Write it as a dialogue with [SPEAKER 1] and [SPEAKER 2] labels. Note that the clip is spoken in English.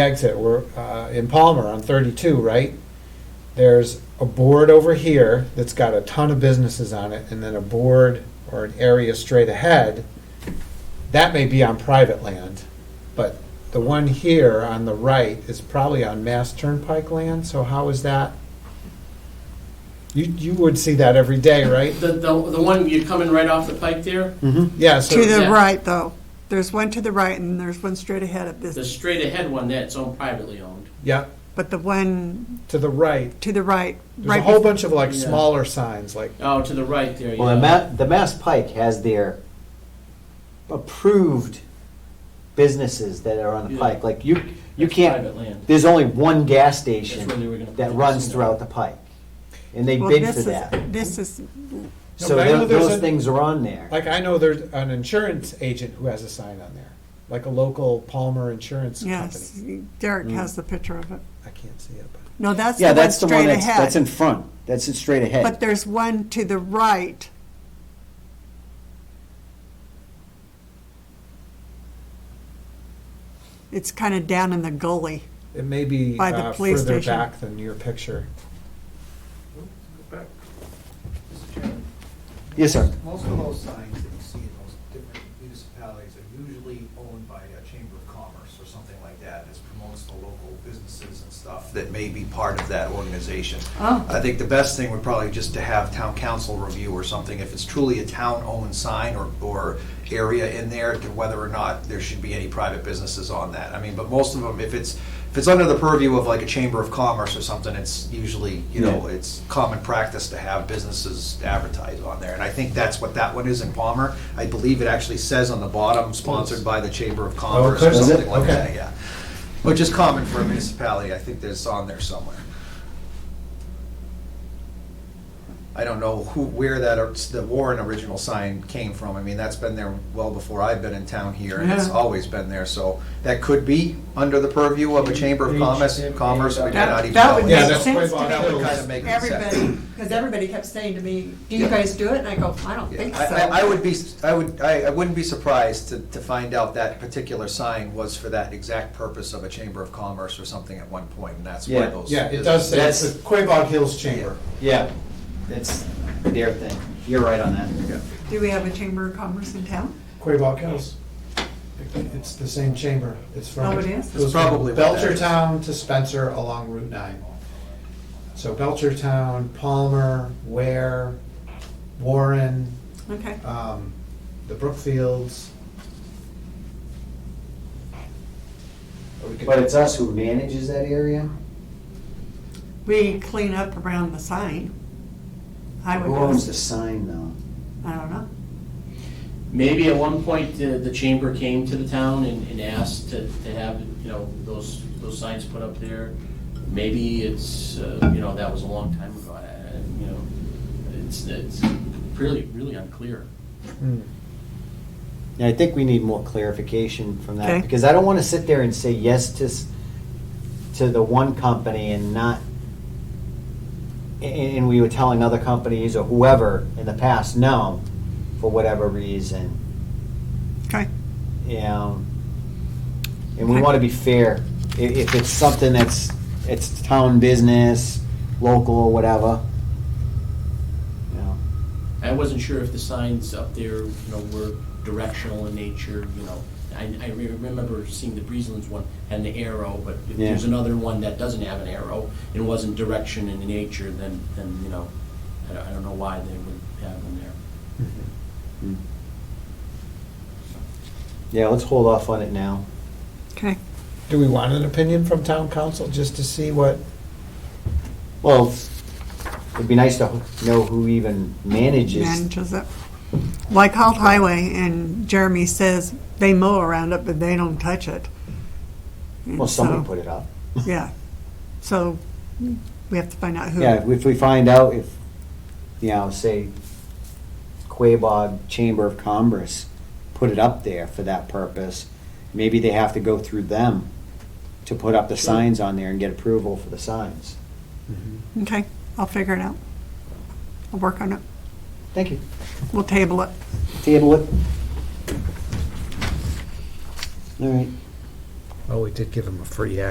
[SPEAKER 1] exit, we're uh, in Palmer on 32, right? There's a board over here that's got a ton of businesses on it, and then a board or an area straight ahead. That may be on private land, but the one here on the right is probably on Mass Turnpike land, so how is that? You, you would see that every day, right?
[SPEAKER 2] The, the, the one you're coming right off the pike there,
[SPEAKER 3] Mm-hmm.
[SPEAKER 1] Yeah,
[SPEAKER 4] Mm-hmm. To
[SPEAKER 1] so,
[SPEAKER 4] the
[SPEAKER 2] Yeah.
[SPEAKER 4] right, though. There's one to the right and there's one straight ahead of
[SPEAKER 2] the
[SPEAKER 4] this.
[SPEAKER 2] straight ahead one, that's owned privately owned.
[SPEAKER 1] yeah,
[SPEAKER 4] But the one
[SPEAKER 1] to the right.
[SPEAKER 4] to the right,
[SPEAKER 1] There's a
[SPEAKER 4] right
[SPEAKER 1] whole
[SPEAKER 4] before,
[SPEAKER 1] bunch of like
[SPEAKER 2] Yeah.
[SPEAKER 1] smaller signs, like,
[SPEAKER 2] Oh, to the right there,
[SPEAKER 3] Well, the,
[SPEAKER 2] yeah.
[SPEAKER 3] Ma- the Mass Pike has their approved businesses that are on the
[SPEAKER 2] Yeah.
[SPEAKER 3] pike. Like you, you
[SPEAKER 2] That's
[SPEAKER 3] can't.
[SPEAKER 2] Private land.
[SPEAKER 3] There's only one gas
[SPEAKER 2] That's where they were
[SPEAKER 3] station
[SPEAKER 2] gonna put
[SPEAKER 3] that
[SPEAKER 2] the
[SPEAKER 3] runs
[SPEAKER 2] casino.
[SPEAKER 3] throughout the pike, and they
[SPEAKER 4] well,
[SPEAKER 3] bid for
[SPEAKER 4] this
[SPEAKER 3] that.
[SPEAKER 4] is, this is,
[SPEAKER 3] So
[SPEAKER 1] but I
[SPEAKER 3] tho-
[SPEAKER 1] know there's
[SPEAKER 3] those
[SPEAKER 1] a-
[SPEAKER 3] things are on there.
[SPEAKER 1] Like I know there's an insurance agent who has a sign on there, like a local Palmer Insurance
[SPEAKER 4] yes,
[SPEAKER 1] Company.
[SPEAKER 4] Derek has the picture of it.
[SPEAKER 1] I can't see it, but
[SPEAKER 4] No, that's
[SPEAKER 3] Mm. yeah,
[SPEAKER 4] the one
[SPEAKER 3] that's the one
[SPEAKER 4] straight
[SPEAKER 3] that's, that's in
[SPEAKER 4] ahead.
[SPEAKER 3] front. That's in straight ahead.
[SPEAKER 4] But there's one to the right. It's kind of down in the gully.
[SPEAKER 1] it may be
[SPEAKER 4] By the
[SPEAKER 1] uh,
[SPEAKER 4] police
[SPEAKER 1] further
[SPEAKER 4] station.
[SPEAKER 1] back than your picture.
[SPEAKER 5] Mr. Chairman,
[SPEAKER 3] yes, sir.
[SPEAKER 5] most of those signs that you see in those different municipalities are usually owned by a chamber of commerce or something like that. It promotes the local businesses and stuff that may be part of that organization.
[SPEAKER 4] Oh.
[SPEAKER 5] I think the best thing would probably just to have town council review or something, if it's truly a town-owned sign or, or area in there, to whether or not there should be any private businesses on that. I mean, but most of them, if it's, if it's under the purview of like a chamber of commerce or something, it's usually, you know,
[SPEAKER 3] Yeah.
[SPEAKER 5] it's common practice to have businesses advertise on there. And I think that's what that one is in Palmer. I believe it actually says on the bottom, sponsored by the Chamber of Commerce or
[SPEAKER 1] does Oh, it?
[SPEAKER 5] something like that,
[SPEAKER 1] Okay.
[SPEAKER 5] yeah. Which is common for a municipality, I think that's on there somewhere. I don't know who, where that, or- the Warren original sign came from. I mean, that's been there well before I've been in town here, and it's
[SPEAKER 4] Yeah.
[SPEAKER 5] always been there. So that could be under the purview of a Chamber of Commerce, Commerce, we may not even know.
[SPEAKER 4] That would
[SPEAKER 1] Yeah,
[SPEAKER 4] make
[SPEAKER 1] that's way
[SPEAKER 4] sense to
[SPEAKER 1] behind
[SPEAKER 4] me.
[SPEAKER 5] That would kind of make sense.
[SPEAKER 4] everybody, because everybody kept saying to me, do you
[SPEAKER 5] Yeah.
[SPEAKER 4] guys do it? And I go, I don't
[SPEAKER 5] Yeah,
[SPEAKER 4] think so.
[SPEAKER 5] I, I- I would be, I would, I, I wouldn't be surprised to, to find out that particular sign was for that exact purpose of a chamber of commerce or something at one point, and that's why
[SPEAKER 3] Yeah.
[SPEAKER 5] those.
[SPEAKER 1] Yeah, it does say it's the
[SPEAKER 3] That's-
[SPEAKER 1] Quabog Hills Chamber.
[SPEAKER 3] Yeah, that's their thing. You're right on that.
[SPEAKER 5] Yeah.
[SPEAKER 4] Do we have a chamber of commerce in town?
[SPEAKER 1] Quabog Hills. It's the same chamber. It's from.
[SPEAKER 4] Oh, it is?
[SPEAKER 1] goes
[SPEAKER 5] It's probably
[SPEAKER 1] from
[SPEAKER 5] what that is.
[SPEAKER 1] Belchertown to Spencer along Route nine. So Belchertown, Palmer, Ware, Warren,
[SPEAKER 4] Okay.
[SPEAKER 1] um, the Brookfields. Or we could-
[SPEAKER 3] But it's us who manages that area.
[SPEAKER 4] We clean up around the sign. Highway
[SPEAKER 3] Who owns the
[SPEAKER 4] goes-
[SPEAKER 3] sign though?
[SPEAKER 4] I don't know.
[SPEAKER 2] Maybe at one point, uh, the, the chamber came to the town and, and asked to, to have, you know, those, those signs put up there. Maybe it's, uh, you know, that was a long time ago, I- I- you know, it's, it's really, really unclear.
[SPEAKER 1] Hmm.
[SPEAKER 3] Yeah, I think we need more clarification from
[SPEAKER 4] Okay.
[SPEAKER 3] that, because I don't want to sit there and say yes to, s- to the one company and not, a- and we were telling other companies or whoever in the past, no, for whatever reason,
[SPEAKER 4] Okay.
[SPEAKER 3] you know. And we
[SPEAKER 4] Okay.
[SPEAKER 3] want to be fair. I- If it's something that's, it's town business, local, whatever. you know.
[SPEAKER 2] I wasn't sure if the signs up there, you know, were directional in nature, you know. I, I re- remember seeing the Breezelands one had an arrow, but if there's
[SPEAKER 3] Yeah.
[SPEAKER 2] another one that doesn't have an arrow, it wasn't direction in nature, then, then, you know, I don't, I don't know why they would have them there.
[SPEAKER 3] Yeah, let's hold off on it now.
[SPEAKER 4] Okay.
[SPEAKER 1] Do we want an opinion from town council just to see what?
[SPEAKER 3] Well, it'd be nice to know who even manages.
[SPEAKER 4] Manages it. Well, I called Highway and Jeremy says they mow around it, but they don't touch it. And
[SPEAKER 3] Well, somebody
[SPEAKER 4] so-
[SPEAKER 3] put it up.
[SPEAKER 4] Yeah. So we have to find out who.
[SPEAKER 3] Yeah, if we find out if, you know, say Quabog Chamber of Commerce put it up there for that purpose, maybe they have to go through them to put up the signs on there and get approval for the signs.
[SPEAKER 4] Okay. I'll figure it out. I'll work on it.
[SPEAKER 3] Thank you.
[SPEAKER 4] We'll table it.
[SPEAKER 3] Table it. All right.
[SPEAKER 1] Oh, we did give him a free ad.